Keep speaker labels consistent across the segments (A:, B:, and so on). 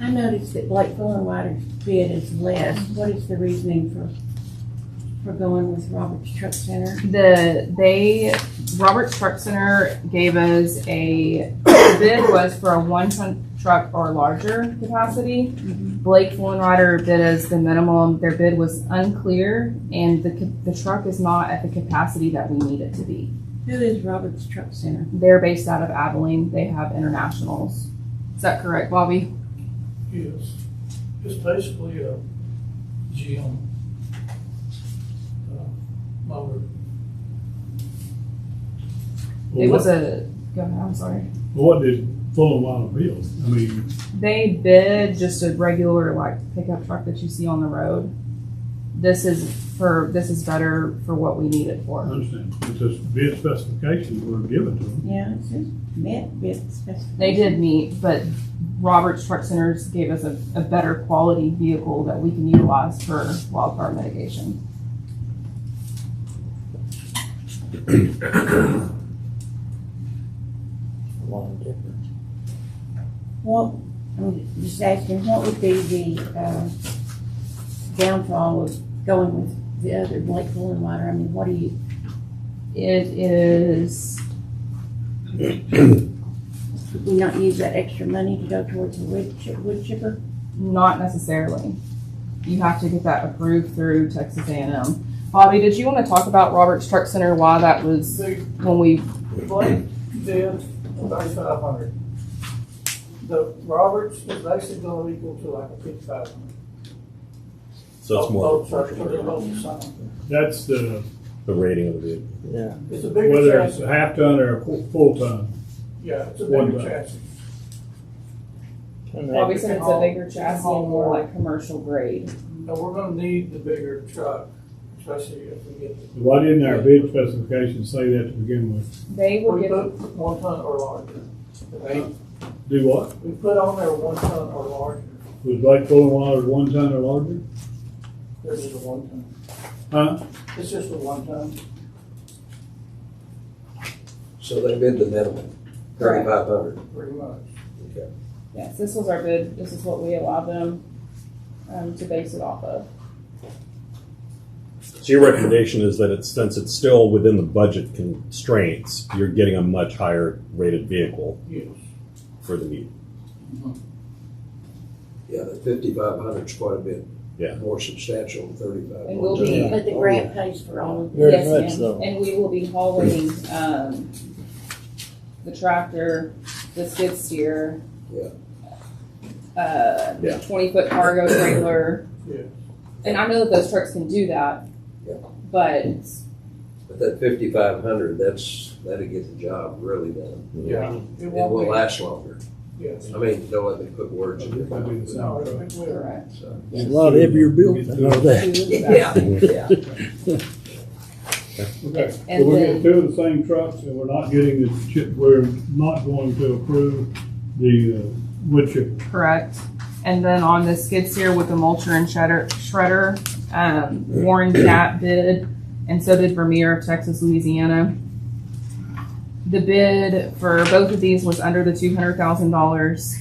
A: I noticed that Blakeville and Ryder's bid is less. What is the reasoning for, for going with Roberts Truck Center?
B: The, they, Roberts Truck Center gave us a, the bid was for a one ton truck or larger capacity. Blake Woolen Rider bid us the minimum, their bid was unclear, and the, ca- the truck is not at the capacity that we need it to be.
A: Who is Roberts Truck Center?
B: They're based out of Abilene, they have internationals. Is that correct, Bobby?
C: Yes, it's basically a gym. uh, mower.
B: It was a, go ahead, I'm sorry.
D: What did Full and Wild build? I mean,
B: They bid just a regular like pickup truck that you see on the road. This is for this is better for what we need it
D: I
B: for.
D: understand, it's just bid specifications were given to them.
A: Yeah, it says met bid specification.
B: They did meet, but Roberts Truck Centers gave us a, a better quality vehicle that we can utilize for wildfire mitigation.
A: What, I'm just asking, what would be the, uh, downfall of going with the other Blakeville and Ryder? I mean, what do you,
B: It is
A: could we not use that extra money to go towards the wood chip, wood chipper?
B: not necessarily. You have to get that approved through Texas A&M. Bobby, did you want to talk about Roberts Truck Center? Why that was
C: They
B: when we
C: Blake did thirty-five hundred. The Roberts is actually gonna equal to like a fifty-five hundred.
E: So it's more
C: Both
E: of a
C: trucks are
E: proportional.
C: both the same.
D: That's the,
E: The rating of the vehicle.
C: It's a bigger
D: whether it's a
C: chassis.
D: half ton or a fu- full ton.
C: Yeah, it's a
D: one
C: bigger
D: back.
C: chassis.
B: Bobby said it's a bigger chassis
C: Haul
B: and more
C: more.
B: like commercial grade.
C: No, we're gonna need the bigger truck, especially if we get. the-
D: Why didn't our bid specifications say that to begin with?
B: They will
C: We
B: give,
C: put one ton or larger.
D: Do what?
C: We put on there one ton or larger.
D: Was like Full and Wild one ton or larger?
C: This is a one ton.
D: Huh?
C: It's just a one ton.
F: So they bid the minimum, thirty-five hundred.
C: Pretty much.
B: yes, this was our bid, this is what we allowed them, um, to base it off of.
E: So your recommendation is that it's, since it's still within the budget constraints, you're getting a much higher rated vehicle
C: Yes.
E: for the meet.
F: Yeah, the fifty-five hundred's quite a bit.
E: Yeah.
F: More substantial than thirty-five.
B: And will be.
A: But the grant pays for all of it.
G: Very
B: Yes,
G: much
B: ma'am.
G: so.
B: And we will be hauling, um, the tractor, the skid steer.
F: Yeah.
B: Uh,
E: Yeah.
B: twenty foot cargo trailer.
C: Yeah.
B: And I know that those trucks can do that.
F: Yeah.
B: But
F: But that fifty-five hundred, that's, that'll get the job really done.
C: Yeah.
F: It
C: It
F: will
C: won't
F: last longer.
C: be, yes.
F: I mean, don't let me put words in your mouth.
C: No, it will.
B: correct.
F: So,
G: It's a lot heavier built than all that.
F: Yeah, yeah.
D: Okay, so
B: And
D: we're
B: then-
D: getting two of the same trucks and we're not getting the chip, we're not going to approve the uh, wood chip.
B: Correct. And then on the skid steer with the mulcher and shredder, shredder, um, Warren Gap bid, and so did Vermeer of Texas, Louisiana. The bid for both of these was under the two hundred thousand dollars.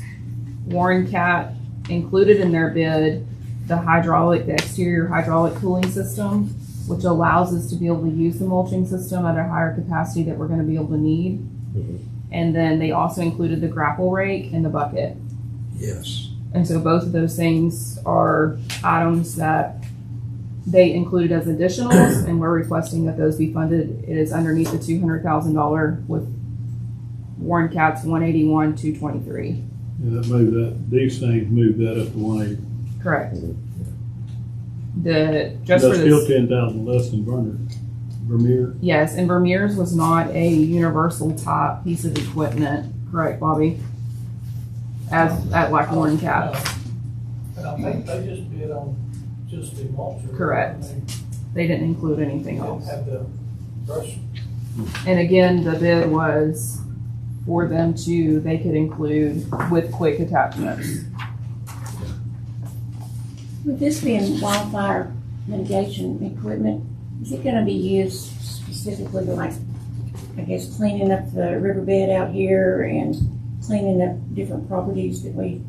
B: Warren Cat included in their bid the hydraulic, the exterior hydraulic cooling system, which allows us to be able to use the mulching system at a higher capacity that we're gonna be able to need.
E: Mhm.
B: And then they also included the grapple rake and the bucket.
F: Yes.
B: And so both of those things are items that they included as additionals, and we're requesting that those be funded. It is underneath the two hundred thousand dollar with Warren Cats one eighty-one, two twenty-three.
D: Yeah, that moved that, these things moved that up to one eighty.
B: Correct. The, just for
D: That's still
B: this,
D: ten thousand less than Vermeer, Vermeer.
B: yes, and Vermeer's was not a universal type piece of equipment, correct, Bobby? As, at like Warren Cats.
C: And Uh, I think they just bid on just the mulcher.
B: Correct. They didn't include
C: They
B: anything
C: didn't
B: else.
C: have the brush.
B: And again, the bid was for them to, they could include with quick attachments.
A: With this being wildfire mitigation equipment, is it gonna be used specifically to like, I guess, cleaning up the riverbed out here and cleaning up different properties that we